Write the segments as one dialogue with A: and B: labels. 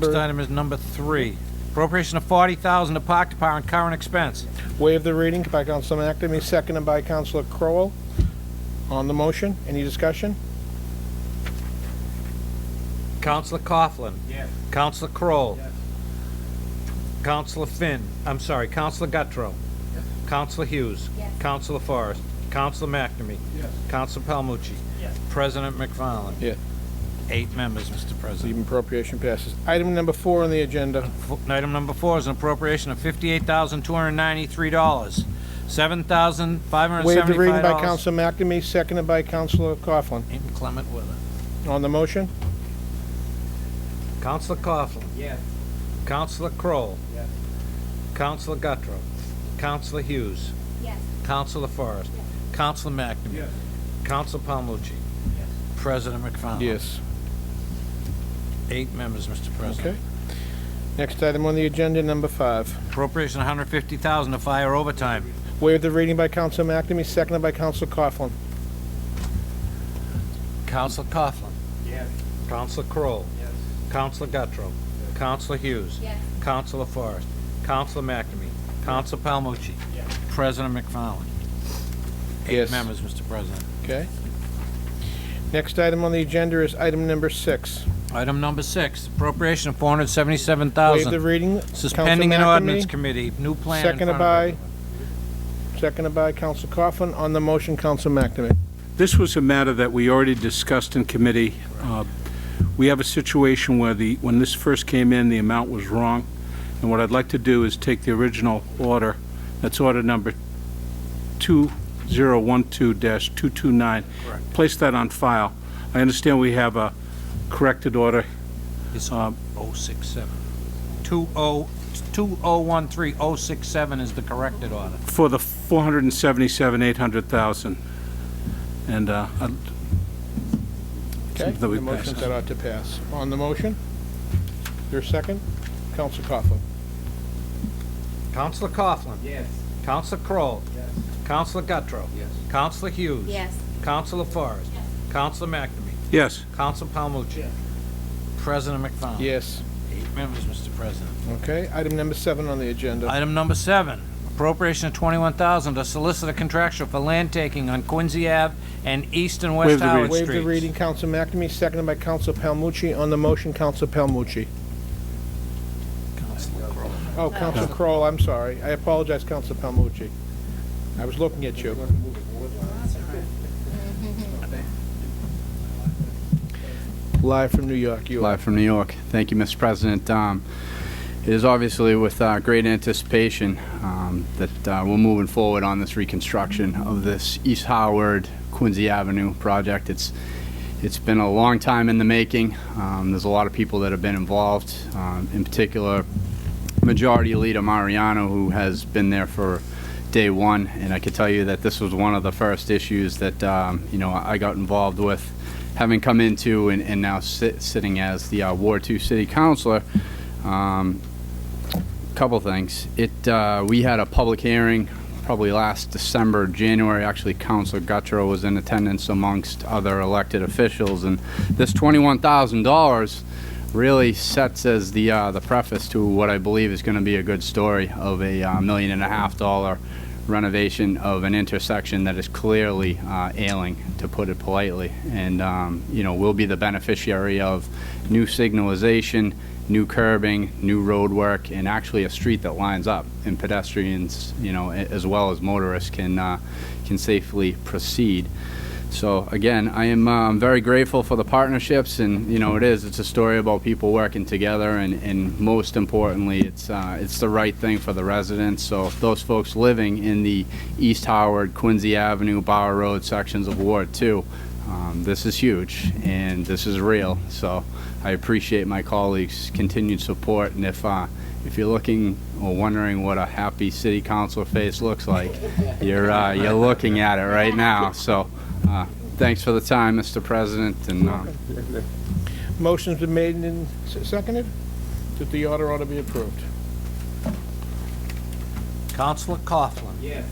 A: Next item is number three, appropriation of forty thousand to Park Department current expense.
B: Waive the reading by Councilman Ackerman, seconded by Councilor Crowell. On the motion, any discussion?
A: Counselor Coughlin.
C: Yes.
A: Counselor Crowell.
C: Yes.
A: Counselor Finn, I'm sorry, Counselor Gattro.
C: Yes.
A: Counselor Hughes.
D: Yes.
A: Counselor Forrest. Counselor McNamee.
C: Yes.
A: Counselor Palmucci.
C: Yes.
A: President McFarland.
B: Yes.
A: Eight members, Mr. President.
B: The appropriation passes. Item number four on the agenda,
A: F- Item number four is an appropriation of fifty-eight thousand, two hundred and ninety-three dollars, seven thousand, five hundred and
B: waive the reading
A: seventy-five
B: by
A: dollars.
B: Councilman Ackerman, seconded by Councilor Coughlin.
A: Inclement weather.
B: On the motion,
A: Counselor Coughlin.
C: Yes.
A: Counselor Crowell.
C: Yes.
A: Counselor Gattro. Counselor Hughes.
D: Yes.
A: Counselor Forrest.
D: Yes.
A: Counselor McNamee.
C: Yes.
A: Counselor Palmucci.
C: Yes.
A: President McFarland.
B: yes,
A: Eight members, Mr. President.
B: okay. Next item on the agenda, number five.
A: Appropriation 150,000 to fire overtime.
B: Waive the reading by Councilman Ackerman, seconded by Councilor Coughlin.
A: Counselor Coughlin.
C: Yes.
A: Counselor Crowell.
C: Yes.
A: Counselor Gattro. Counselor Hughes.
D: Yes.
A: Counselor Forrest. Counselor McNamee. Counselor Palmucci.
C: Yes.
A: President McFarland. Eight
B: Yes.
A: members, Mr. President.
B: Okay. Next item on the agenda is item number six.
A: Item number six, appropriation of
B: Waive the
A: 477,000.
B: reading.
A: Suspending an
B: Councilman
A: ordinance
B: Ackerman,
A: committee, new plan in front
B: Seconded
A: of
B: by,
A: everyone.
B: seconded by Councilor Coughlin. On the motion, Councilman Ackerman.
E: This was a matter that we already discussed in committee. Uh, We have a situation where the, when this first came in, the amount was wrong, and what I'd like to do is take the original order, that's order number 2012-229,
A: Correct.
E: place that on file. I understand we have a corrected order.
A: It's
E: Um,
A: 067. 20 2013067 is the corrected order.
E: for the 477, 800,000. And uh, I'd-
B: Okay,
E: That we
B: the motion
E: pass.
B: that ought to pass. On the motion, your second, Counsel Coughlin.
A: Counselor Coughlin.
C: Yes.
A: Counselor Crowell.
C: Yes.
A: Counselor Gattro.
C: Yes.
A: Counselor Hughes.
D: Yes.
A: Counselor Forrest.
D: Yes.
A: Counselor McNamee.
E: yes,
A: Counselor Palmucci.
C: Yes.
A: President McFaul.
B: Yes,
A: Eight members, Mr. President.
B: okay. Item number seven on the agenda.
A: Item number seven, appropriation of twenty-one thousand to solicit a contractual for land taking on Quincy Ave and East and West
E: Waive the reading.
A: Howard
B: Waive the reading,
A: Streets.
B: Counsel McNamee, seconded by Counsel Palmucci. On the motion, Counsel Palmucci.
A: Counselor Crowell.
B: Oh, Counsel Crowell, I'm sorry. I apologize, Counsel Palmucci. I was looking at you. Live from New York, you are.
F: Live from New York. Thank you, Mr. President. Um, It is obviously with uh, great anticipation um, that uh, we're moving forward on this reconstruction of this East Howard Quincy Avenue project. It's, it's been a long time in the making. Um, There's a lot of people that have been involved, um, in particular, Majority Leader Mariano, who has been there for day one. And I can tell you that this was one of the first issues that, um, you know, I got involved with, having come into and, and now sit, sitting as the uh, Ward Two City Councilor. Um, couple things. It, uh, we had a public hearing probably last December, January. Actually, Councilor Guttrow was in attendance amongst other elected officials. And this $21,000 really sets as the, uh, the preface to what I believe is going to be a good story of a uh, million and a half dollar renovation of an intersection that is clearly uh, ailing, to put it politely. And, um, you know, we'll be the beneficiary of new signalization, new curbing, new road work, and actually a street that lines up, and pedestrians, you know, a- as well as motorists can, uh, can safely proceed. So again, I am um, very grateful for the partnerships, and you know, it is. It's a story about people working together, and, and most importantly, it's uh, it's the right thing for the residents. So if those folks living in the East Howard, Quincy Avenue, Bauer Road sections of Ward Two, um, this is huge, and this is real. So I appreciate my colleagues' continued support, and if uh, if you're looking or wondering what a happy city council face looks like, you're uh, you're looking at it right now. So. Uh, Thanks for the time, Mr. President, and uh,
B: Motion's been made and s- seconded that the order ought to be approved.
A: Counselor Coughlin.
C: Yes.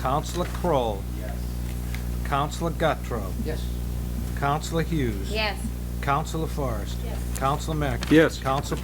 A: Counselor Crowell.
C: Yes.
A: Counselor Gattro.
C: Yes.
A: Counselor Hughes.
D: Yes.
A: Counselor Forrest.
D: Yes.
A: Counselor Mack.
E: Yes.
A: Counselor